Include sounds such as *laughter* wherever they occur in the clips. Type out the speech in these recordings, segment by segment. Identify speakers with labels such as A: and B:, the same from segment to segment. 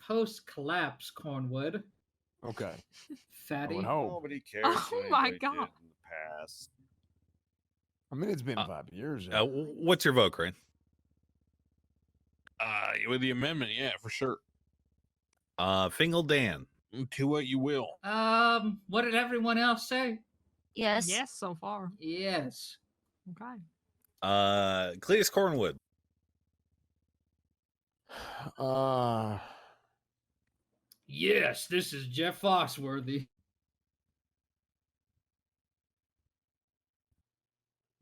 A: post collapse Cornwood.
B: Okay. I
A: Fatty.
B: would hope.
C: Nobody cares.
D: Oh
C: what
D: my
C: anybody did
D: God.
C: In the past,
B: I mean, it's been
E: Uh,
B: five years.
E: Uh,
B: now.
E: w- what's your vote, Crane?
C: uh, with the amendment, yeah, for sure.
E: Uh, Fingal Dan.
F: Mm,
C: To what you will.
A: Um, what did everyone else say?
G: Yes.
D: Yes, so far.
A: Yes.
D: Okay.
E: Uh, Cletus Cornwood.
B: Uh,
A: Yes, this is Jeff Foxworthy.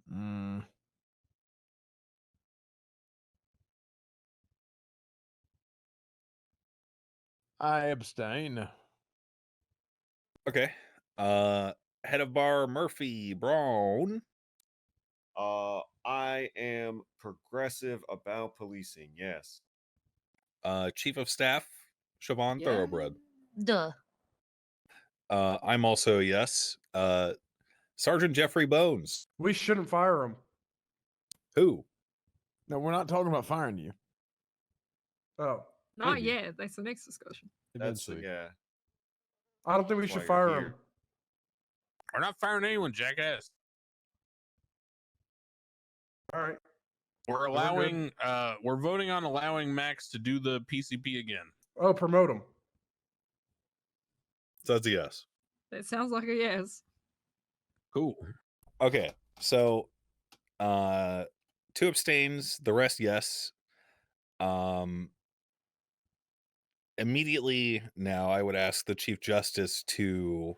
B: mm, I abstain.
E: Okay. Uh, head of bar Murphy Brown.
C: Uh, I am progressive about policing. Yes.
E: Uh, chief of staff Siobhan
A: Yeah.
E: Thoroughbred.
G: Duh.
E: Uh, I'm also a yes. Uh, Sergeant Jeffrey Bones.
H: We shouldn't fire him.
E: Who?
B: No, we're not talking about firing you.
H: Oh,
D: Not
B: Maybe.
D: yet. That's the next discussion.
C: That's the
B: Eventually.
C: yeah.
H: I don't think we
C: Oh, That's
H: should
C: why you're
H: fire him.
C: here. We're not firing anyone, jackass.
H: All right.
F: We're
H: good.
F: allowing, uh, we're voting on allowing Max to do the PCP again.
H: Oh, promote him.
E: So that's a yes.
D: That sounds like a yes.
E: Cool. Okay. So, uh, two abstains. The rest yes. Um. Immediately now, I would ask the chief justice to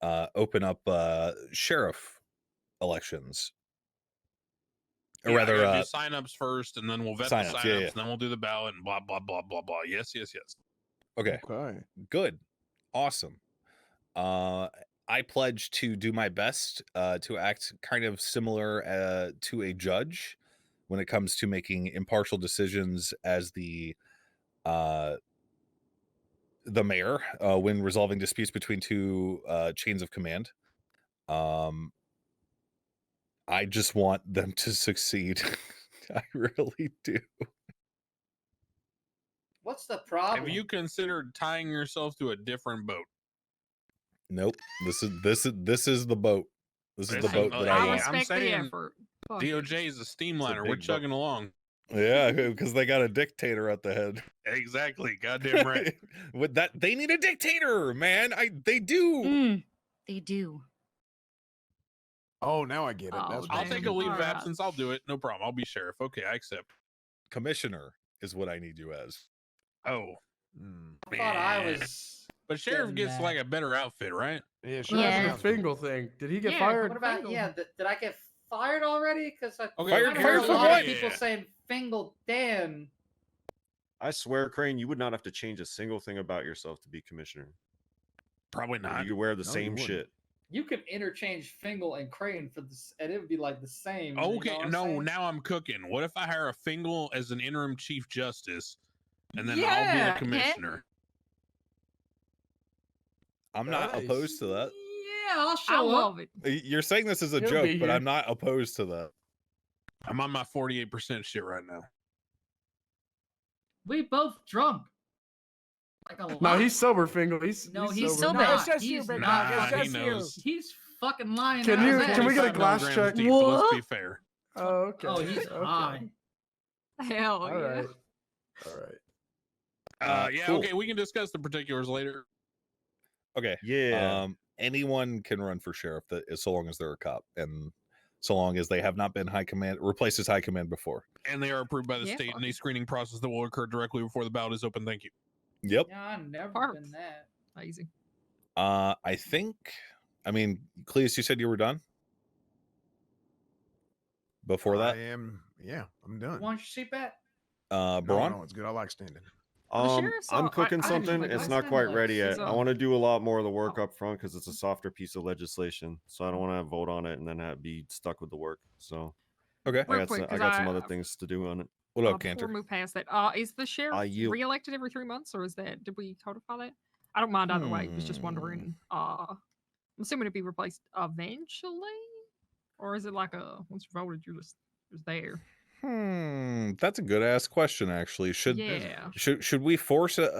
E: uh, open up uh, sheriff elections, or
F: Yeah, I
E: rather,
F: gotta
E: uh,
F: do signups first, and then we'll vet
E: signups,
F: the
E: yeah,
F: signups,
E: yeah.
F: and then we'll do the ballot, and blah blah blah blah blah. Yes, yes, yes.
E: okay.
B: Okay.
E: good awesome uh i pledge to do my best uh to act kind of similar uh to a judge when it comes to making impartial decisions as the uh the mayor uh when resolving disputes between two uh chains of command um i just want them to succeed *laughs* i really do
A: What's the problem?
F: Have you considered tying yourself to a different boat?
E: nope this is this is this is the boat this is the
F: This
E: boat
F: is-
E: that
F: uh,
E: i
F: I'm
D: I
E: want
F: s-
D: respect the
F: saying
D: effort. Fuck it.
F: DOJ is a steamliner.
E: big
F: We're
E: boat.
F: chugging along.
E: Yeah, *laughs* because they got a dictator at the head. *laughs*
F: Exactly. Goddamn right.
E: With that, they need a dictator, man. I they do.
G: Mm, they do.
B: Oh, now I get it.
D: Oh,
B: That's what
F: I'll
B: I'm
D: Damn.
F: take a
B: thinking.
F: leave of
D: Alright.
F: absence. I'll do it. No problem. I'll be sheriff. Okay, I accept.
E: Commissioner is what I need you as.
F: Oh,
B: Mm.
A: I thought I
F: man.
A: was.
F: But sheriff
A: Doesn't
F: gets
A: matter.
F: like a better outfit, right?
B: Yeah, sure.
H: What happened
G: Yeah.
H: to the Fingal thing? Did he get
D: Yeah,
H: fired?
A: What about
D: Fingal.
A: yeah? Th- did I get fired already? Because I
F: Okay,
A: I
E: Fired-
A: heard
E: fired
A: a
E: for
A: lot
E: what?
A: of people saying Fingal Dan.
C: I swear, Crane, you would not have to change a single thing about yourself to be commissioner.
F: Probably not.
C: You could wear the
B: No, you
C: same
B: wouldn't.
C: shit.
A: You could interchange Fingal and Crane for this, and it would be like the same. you know
F: Okay,
A: what I'm
F: no,
A: saying?
F: now I'm cooking. What if I hire a Fingal as an interim chief justice and then
A: Yeah,
F: I'll
A: yeah.
F: be the commissioner?
E: I'm not
B: Nice.
E: opposed to
F: uh,
E: that.
A: Yeah, I'll show
D: I
A: up.
D: love it. *laughs*
E: Y- You're saying this is a
H: He'll
E: joke,
H: be
E: but
H: here.
E: I'm not opposed to that.
F: I'm on my 48% shit right now.
A: We both drunk. Like a
H: No,
A: lot.
H: he's sober, Fingal. He's
A: no,
H: he's
A: he's
G: sober.
A: sober.
G: Nah,
A: Not.
G: it's
A: He's not.
F: Nah, he
A: fucking-
F: knows.
A: He's fucking lying.
H: Can
A: out
H: you-
A: his
H: can we
A: ass.
H: get a
F: 45
H: glass
F: milligrams
H: check?
F: deep, but let's be
D: What?
F: fair.
H: Oh, okay.
A: Oh, he's
H: okay.
A: high.
D: Hell
H: All
D: yeah.
H: right. All right.
F: Uh,
E: Uh,
F: yeah,
E: cool.
F: okay, we can discuss the particulars later.
E: Okay.
C: Yeah.
E: Um, anyone can run for sheriff that is so long as they're a cop and so long as they have not been high command replaced as high command before.
F: And they are approved by the
D: Yeah,
F: state in
D: fuck
F: a
D: it.
F: screening process that will occur directly before the ballot is open. Thank you.
E: Yep.
A: Yeah, I've never
D: Perfect.
A: been that.
D: Amazing.
E: Uh, I think. I mean, Cleus, you said you were done before that.
B: I am. Yeah, I'm
A: You
B: done.
A: want your seatback?
E: Uh,
B: No,
E: Braun.
B: no, it's good. I like standing.
D: the
C: Um,
D: sheriff's
C: I'm
D: all- I-
C: cooking
D: I just
C: something.
D: like- I
C: it's not
D: sound
C: quite
D: like
C: ready
D: she's
C: yet. I
D: on-
C: want to do a lot more of the work
D: Oh.
C: up front because it's a softer piece of legislation. So I don't want to vote on it and then have, be stuck with the work. So
E: Okay.
C: I
D: Real
C: got
D: quick,
C: some, I
D: 'cause
C: got some
D: I-
C: other things to do on it.
E: What
D: Uh,
E: up,
D: before
E: Cantor?
D: we move past that, uh, is the sheriff
C: I yield.
D: reelected every three months, or is that did we codify that? I don't mind either way. Was just wondering.
E: Hmm.
D: Uh, I'm assuming it'd be replaced eventually, or is it like a once you voted, you just was there?
E: Hmm, that's a good ass question. Actually, should
D: yeah.
E: should should we force a,